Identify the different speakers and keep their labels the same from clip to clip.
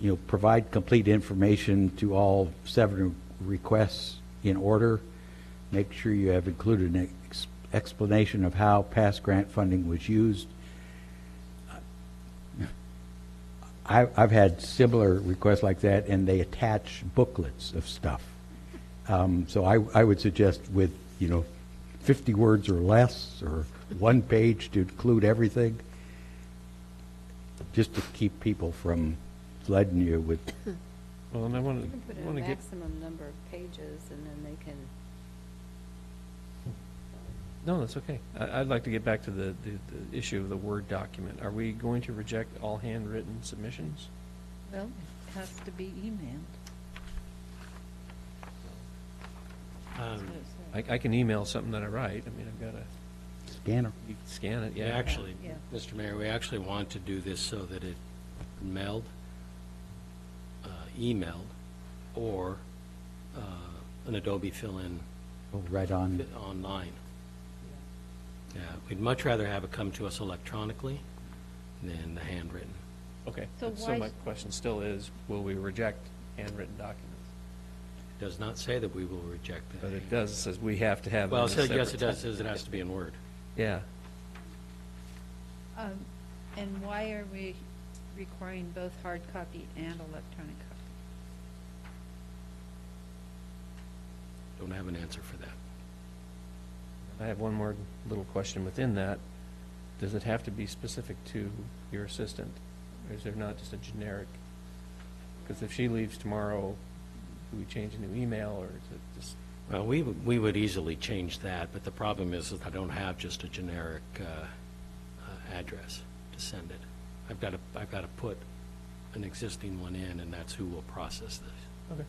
Speaker 1: you know, provide complete information to all seven requests in order. Make sure you have included an ex- explanation of how past grant funding was used. I, I've had similar requests like that, and they attach booklets of stuff. Um, so I, I would suggest with, you know, fifty words or less, or one page to include everything, just to keep people from flooding you with,
Speaker 2: Well, and I want
Speaker 3: You can
Speaker 2: to,
Speaker 3: put in
Speaker 2: want
Speaker 3: a
Speaker 2: to get,
Speaker 3: maximum number of pages, and then they can,
Speaker 2: no, that's okay. I, I'd like to get back to the, the, the issue of the Word document. Are we going to reject all handwritten submissions?
Speaker 4: Well, it has to be emailed.
Speaker 5: Um,
Speaker 2: I, I can email something that I write. I mean, I've got to,
Speaker 1: scanner.
Speaker 2: you can scan it,
Speaker 5: We
Speaker 2: yeah.
Speaker 5: actually,
Speaker 4: Yeah.
Speaker 5: Mr. Mayor, we actually want to do this so that it mailed, uh, emailed, or uh, an Adobe fill-in
Speaker 1: Oh, right on.
Speaker 5: online. Yeah, we'd much rather have it come to us electronically than the handwritten.
Speaker 2: Okay.
Speaker 4: So
Speaker 2: So
Speaker 4: why-
Speaker 2: my question still is, will we reject handwritten documents?
Speaker 5: It does not say that we will reject that.
Speaker 2: But it does, it says we have to have them
Speaker 5: Well,
Speaker 2: in
Speaker 5: it
Speaker 2: a
Speaker 5: says, yes,
Speaker 2: separate
Speaker 5: it does,
Speaker 2: time.
Speaker 5: says it has to be in Word.
Speaker 2: Yeah.
Speaker 4: Um, And why are we requiring both hard copy and electronic copy?
Speaker 5: Don't have an answer for that.
Speaker 2: I have one more little question within that. Does it have to be specific to your assistant? Or is there not just a generic? Because if she leaves tomorrow, do we change a new email, or is it just,
Speaker 5: Well, we, w- we would easily change that, but the problem is that I don't have just a generic uh, uh, address to send it. I've got to, I've got to put an existing one in, and that's who will process this.
Speaker 2: okay,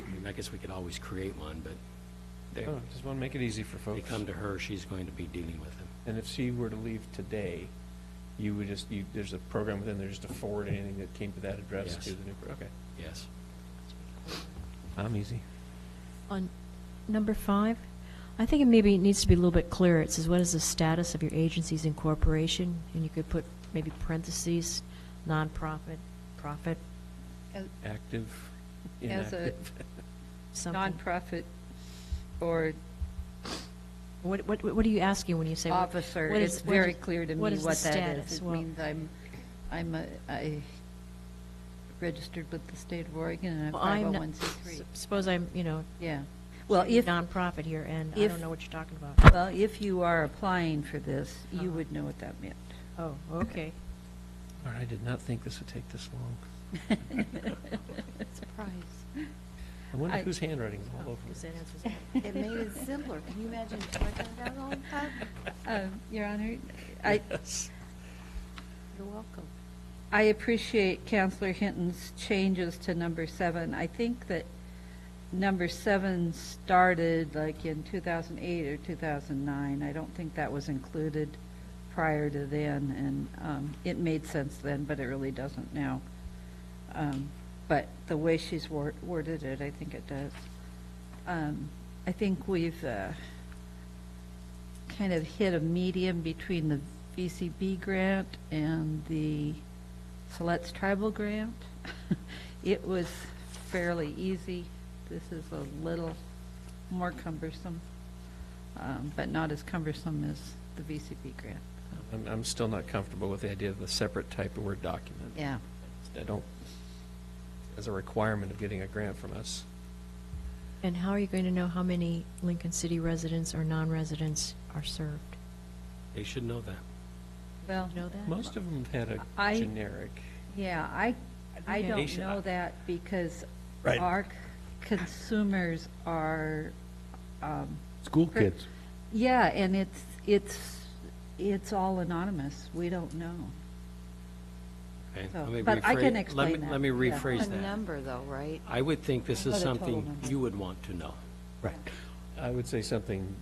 Speaker 5: I mean, I guess we could always create one, but they,
Speaker 2: Oh, just want to make it easy for
Speaker 5: they
Speaker 2: folks.
Speaker 5: come to her, she's going to be dealing with them.
Speaker 2: And if she were to leave today, you would just, you, there's a program within there just to forward anything that came to that address
Speaker 5: Yes.
Speaker 2: to the new, per- okay.
Speaker 5: Yes.
Speaker 2: I'm easy.
Speaker 6: On number five, I think it maybe needs to be a little bit clearer. It says, what is the status of your agency's incorporation? And you could put maybe parentheses, nonprofit, profit,
Speaker 4: Uh,
Speaker 2: Active,
Speaker 4: As a
Speaker 2: inactive.
Speaker 6: something.
Speaker 4: nonprofit or
Speaker 6: What, what, what are you asking when you say? what-
Speaker 4: officer,
Speaker 6: what is-
Speaker 4: it's
Speaker 6: what is-
Speaker 4: very clear to me
Speaker 6: what
Speaker 4: what
Speaker 6: is the
Speaker 4: that
Speaker 6: status?
Speaker 4: is. It
Speaker 6: Well-
Speaker 4: means I'm, I'm a, I registered with the state of Oregon, and
Speaker 6: Well,
Speaker 4: I'm
Speaker 6: I'm not-
Speaker 4: 501c3.
Speaker 6: Suppose I'm, you know,
Speaker 4: Yeah. Well, if,
Speaker 6: nonprofit here, and I
Speaker 4: if-
Speaker 6: don't know what you're talking about.
Speaker 4: well, if you are applying for this, you
Speaker 6: Uh-huh.
Speaker 4: would know what that meant.
Speaker 6: Oh, okay.
Speaker 2: Lord, I did not think this would take this long.
Speaker 3: surprise.
Speaker 2: I wonder
Speaker 4: I-
Speaker 2: whose handwriting is all
Speaker 6: Oh,
Speaker 2: over
Speaker 6: because
Speaker 2: this.
Speaker 6: that answers that.
Speaker 3: It made it simpler. Can you imagine typing it out all the time?
Speaker 4: Um, Your Honor, I,
Speaker 3: You're welcome.
Speaker 4: I appreciate Counselor Hinton's changes to number seven. I think that number seven started like in 2008 or 2009. I don't think that was included prior to then, and um, it made sense then, but it really doesn't now. Um, But the way she's wor- worded it, I think it does. Um, I think we've uh, kind of hit a medium between the VCB grant and the Siletz Tribal Grant. It was fairly easy. This is a little more cumbersome, um, but not as cumbersome as the VCB grant.
Speaker 2: I'm, I'm still not comfortable with the idea of a separate type of Word document.
Speaker 4: Yeah.
Speaker 2: I don't, as a requirement of getting a grant from us.
Speaker 6: And how are you going to know how many Lincoln City residents or non-residents are served?
Speaker 5: They should know that.
Speaker 4: Well,
Speaker 6: Do you know that?
Speaker 2: Most of them had a
Speaker 4: I-
Speaker 2: generic,
Speaker 4: yeah, I, I
Speaker 6: Okay.
Speaker 4: don't
Speaker 2: Nation-
Speaker 4: know that because
Speaker 1: Right.
Speaker 4: our consumers are, um,
Speaker 1: School
Speaker 4: Per-
Speaker 1: kids.
Speaker 4: Yeah, and it's, it's, it's all anonymous. We don't know.
Speaker 5: okay?
Speaker 4: So-
Speaker 5: Let me
Speaker 4: Oh, but I can
Speaker 5: rephrase- let
Speaker 4: explain
Speaker 5: me-
Speaker 4: that,
Speaker 5: Let me
Speaker 4: yeah.
Speaker 5: rephrase
Speaker 3: A
Speaker 5: that.
Speaker 3: number, though, right?
Speaker 5: I would think this
Speaker 4: Not
Speaker 5: is
Speaker 4: a total
Speaker 5: something
Speaker 4: number.
Speaker 5: you would want to know.
Speaker 1: Right.
Speaker 2: I would say something,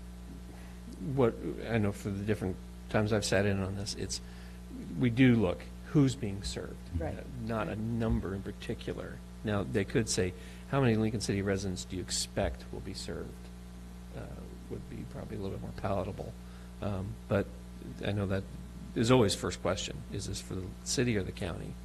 Speaker 2: what, I know for the different times I've sat in on this, it's, we do look, who's being served? Uh,
Speaker 4: Right.
Speaker 2: Not a number in particular. Now, they could say, how many Lincoln City residents do you expect will be served? Uh, Would be probably a little bit more palatable. Um, But I know that is always first question, is this for the city or the county?